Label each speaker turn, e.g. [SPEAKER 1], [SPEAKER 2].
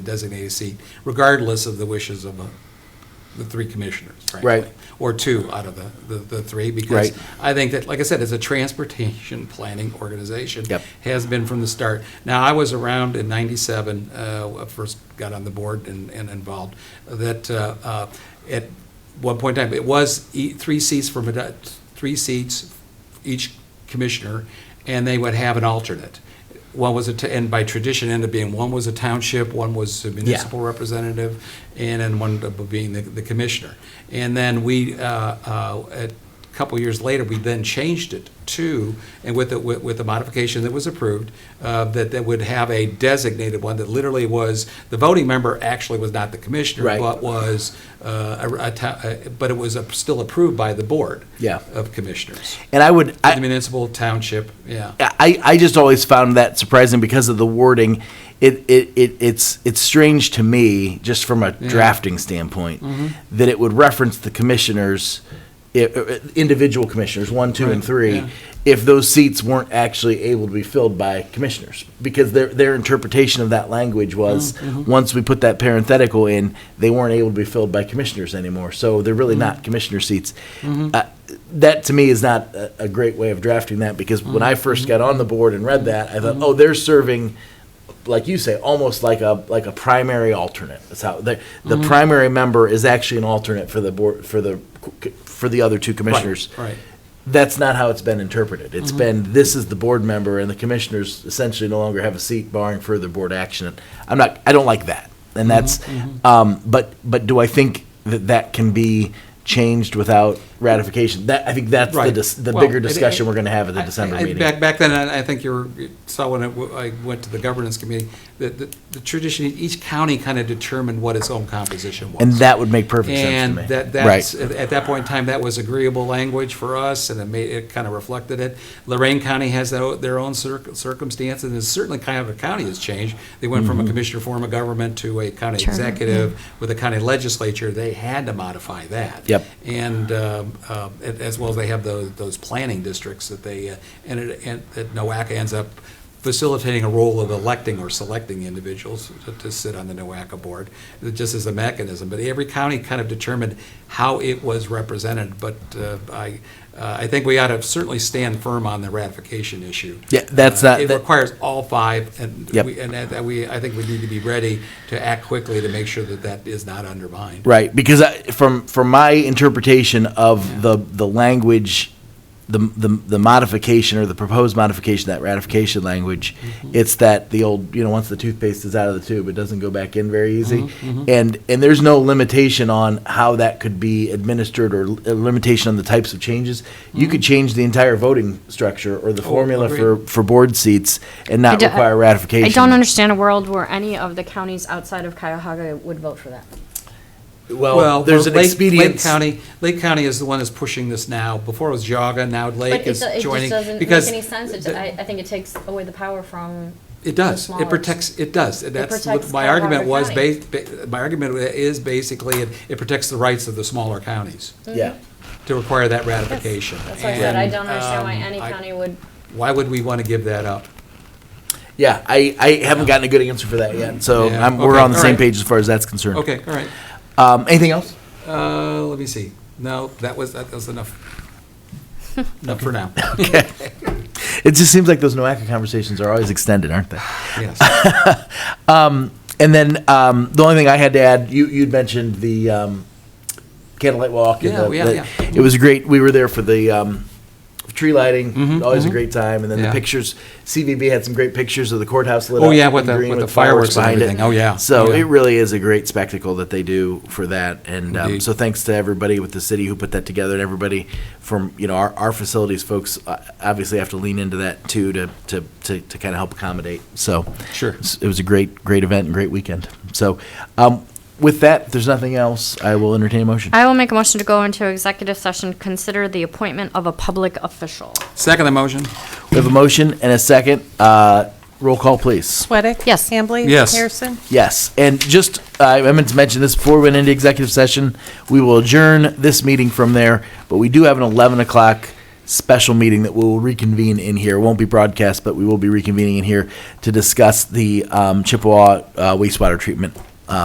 [SPEAKER 1] designated seat, regardless of the wishes of uh, the three commissioners, frankly.
[SPEAKER 2] Right.
[SPEAKER 1] Or two out of the, the, the three, because
[SPEAKER 2] Right.
[SPEAKER 1] I think that, like I said, it's a transportation planning organization.
[SPEAKER 2] Yep.
[SPEAKER 1] Has been from the start. Now, I was around in ninety-seven, uh, when I first got on the board and, and involved, that, uh, uh, at one point in time, it was e- three seats for, Medi- three seats each commissioner, and they would have an alternate. One was a, t- and by tradition ended up being, one was a township, one was a municipal representative, and then one of being the, the commissioner. And then we, uh, uh, a couple years later, we then changed it to, and with the, with with the modification that was approved, uh, that, that would have a designated one that literally was, the voting member actually was not the commissioner,
[SPEAKER 2] Right.
[SPEAKER 1] but was, uh, a, a town- uh, but it was a- still approved by the board
[SPEAKER 2] Yeah.
[SPEAKER 1] of commissioners.
[SPEAKER 2] And I would,
[SPEAKER 1] The
[SPEAKER 2] I,
[SPEAKER 1] municipal township, yeah.
[SPEAKER 2] I, I just always found that surprising because of the wording. It, it, it it's, it's strange to me, just from a drafting standpoint, that it would reference the commissioners, i- i- individual commissioners, one, two, and
[SPEAKER 1] Right, yeah.
[SPEAKER 2] three, if those seats weren't actually able to be filled by commissioners, because their, their interpretation of that language was,
[SPEAKER 1] Mm-hmm.
[SPEAKER 2] once we put that parenthetical in, they weren't able to be filled by commissioners anymore, so they're really
[SPEAKER 1] Mm-hmm.
[SPEAKER 2] not commissioner seats. Uh, That, to me, is not a, a great way of drafting that, because when
[SPEAKER 1] Mm-hmm.
[SPEAKER 2] I first got on the board and read that, I thought, oh, they're serving, like you say, almost like a, like a primary alternate, that's how, the, the
[SPEAKER 1] Mm-hmm.
[SPEAKER 2] primary member is actually an alternate for the board, for the, for the other two commissioners
[SPEAKER 1] Right.
[SPEAKER 2] that's not how it's been interpreted.
[SPEAKER 1] Mm-hmm.
[SPEAKER 2] It's been this is the board member and the commissioners essentially no longer have a seat barring further board action. I'm not I don't like that. And that's
[SPEAKER 1] Mm-hmm.
[SPEAKER 2] um, but but do I think that that can be changed without ratification? That I think that's the
[SPEAKER 1] Right.
[SPEAKER 2] dis- the
[SPEAKER 1] Well,
[SPEAKER 2] bigger
[SPEAKER 1] it- it-
[SPEAKER 2] discussion we're going to have at the
[SPEAKER 1] I-
[SPEAKER 2] December
[SPEAKER 1] I- I-
[SPEAKER 2] meeting.
[SPEAKER 1] Back, back then, I I think you were, you saw when I w- I went to the governance committee, that the, the tradition, each county kind of determined what its own composition was.
[SPEAKER 2] and that would make perfect sense
[SPEAKER 1] And
[SPEAKER 2] to me.
[SPEAKER 1] that, that's, at at that point in time, that was agreeable language for us, and it made, it kind of reflected it. Lorraine County has their, o- their own cir- circumstances, and certainly kind of the county has changed. They went from a
[SPEAKER 2] Mm-hmm.
[SPEAKER 1] commissioner form of government to a county
[SPEAKER 3] Sure,
[SPEAKER 1] executive with a county legislature. They had to modify that.
[SPEAKER 2] Yep.
[SPEAKER 1] And, um, uh, a- as well as they have those, those planning districts that they, uh, and, it- and that NOACA ends up facilitating a role of electing or selecting individuals to, to sit on the NOACA board, it just as a mechanism. But every county kind of determined how it was represented, but uh, I, uh, I think we ought to certainly stand firm on the ratification issue.
[SPEAKER 2] Yeah, that's not-
[SPEAKER 1] Uh, It
[SPEAKER 2] that-
[SPEAKER 1] requires all five, and
[SPEAKER 2] Yep.
[SPEAKER 1] we, and that that we, I think we need to be ready to act quickly to make sure that that is not undermined.
[SPEAKER 2] Right, because I, from from my interpretation of the the language, the, the the modification or the proposed modification that ratification language,
[SPEAKER 1] Mm-hmm.
[SPEAKER 2] it's that the old you know once the toothpaste is out of the tube, it doesn't go back in very easy,
[SPEAKER 1] Mm-hmm,
[SPEAKER 2] and and there's no limitation on how that could be administered or a limitation on the types of changes. You could change the entire voting structure or the formula for
[SPEAKER 1] Mm-hmm. Oh, agreed.
[SPEAKER 2] for board seats and not
[SPEAKER 3] I do- uh,
[SPEAKER 2] require ratification.
[SPEAKER 3] I don't understand a world where any of the counties outside of Cuyahoga would vote for that.
[SPEAKER 2] Well,
[SPEAKER 1] Well,
[SPEAKER 2] there's an
[SPEAKER 1] Lake- Lake
[SPEAKER 2] expedience.
[SPEAKER 1] County, Lake County is the one that's pushing this now. Before it was Jaga, now Lake
[SPEAKER 3] But it
[SPEAKER 1] is
[SPEAKER 3] do- it
[SPEAKER 1] joining.
[SPEAKER 3] just doesn't make
[SPEAKER 1] because
[SPEAKER 3] any sense. It-
[SPEAKER 1] the-
[SPEAKER 3] I, I think it takes away the power from,
[SPEAKER 1] It does.
[SPEAKER 3] the
[SPEAKER 1] It
[SPEAKER 3] smaller-
[SPEAKER 1] protects, it does. That's, what
[SPEAKER 3] protects
[SPEAKER 1] my argument
[SPEAKER 3] Cuyahoga
[SPEAKER 1] was,
[SPEAKER 3] County.
[SPEAKER 1] ba- ba- my argument is basically, it- it protects the rights of the smaller counties
[SPEAKER 2] Yeah.
[SPEAKER 1] to require that ratification.
[SPEAKER 3] that's why I said, I
[SPEAKER 1] And,
[SPEAKER 3] don't understand why
[SPEAKER 1] um,
[SPEAKER 3] any
[SPEAKER 1] I-
[SPEAKER 3] county would.
[SPEAKER 1] Why would we want to give that up?
[SPEAKER 2] Yeah, I, I haven't gotten a good answer for that yet, so
[SPEAKER 1] Yeah,
[SPEAKER 2] I'm, we're
[SPEAKER 1] okay,
[SPEAKER 2] on the
[SPEAKER 1] all
[SPEAKER 2] same
[SPEAKER 1] right.
[SPEAKER 2] page as far as that's concerned.
[SPEAKER 1] Okay, all right.
[SPEAKER 2] Um, anything else?
[SPEAKER 1] Uh, Let me see. No, that was, that was enough. Enough for now.
[SPEAKER 2] It just seems like those NOACA conversations are always extended, aren't they?
[SPEAKER 1] Yes.
[SPEAKER 2] And then um, the only thing I had to add, you you'd mentioned the um, candlelight walk. and
[SPEAKER 1] Yeah, oh,
[SPEAKER 2] the-
[SPEAKER 1] yeah,
[SPEAKER 2] the-
[SPEAKER 1] yeah.
[SPEAKER 2] It was great. We were there for the um, tree lighting.
[SPEAKER 1] Mhm,
[SPEAKER 2] always
[SPEAKER 1] mhm.
[SPEAKER 2] a great time. And then
[SPEAKER 1] Yeah.
[SPEAKER 2] the pictures. CVB had some great pictures of the courthouse lit
[SPEAKER 1] Oh,
[SPEAKER 2] up
[SPEAKER 1] yeah, with
[SPEAKER 2] in
[SPEAKER 1] the-
[SPEAKER 2] green
[SPEAKER 1] with the fireworks and
[SPEAKER 2] behind it.
[SPEAKER 1] everything. Oh, yeah.
[SPEAKER 2] So
[SPEAKER 1] Yeah.
[SPEAKER 2] it really is a great spectacle that they do for that. And um,
[SPEAKER 1] Indeed.
[SPEAKER 2] so thanks to everybody with the city who put that together, and everybody from you know our, our facilities folks uh, obviously have to lean into that too to to to, to kind of help accommodate. So
[SPEAKER 1] Sure.
[SPEAKER 2] s- it was a great, great event and great weekend. So, um, with that, if there's nothing else, I will entertain a motion.
[SPEAKER 3] I will make a motion to go into executive session, consider the appointment of a public official.
[SPEAKER 1] Second the motion?
[SPEAKER 2] We have a motion and a second. Uh, roll call, please.
[SPEAKER 4] Sweattick?
[SPEAKER 3] Yes.
[SPEAKER 4] Hambley?
[SPEAKER 1] Yes.
[SPEAKER 4] Harrison?
[SPEAKER 2] Yes, and just, uh, I meant to mention this before we went into executive session. We will adjourn this meeting from there, but we do have an eleven o'clock special meeting that we'll reconvene in here. It won't be broadcast, but we will be reconvening in here to discuss the um, Chippewa uh, wastewater treatment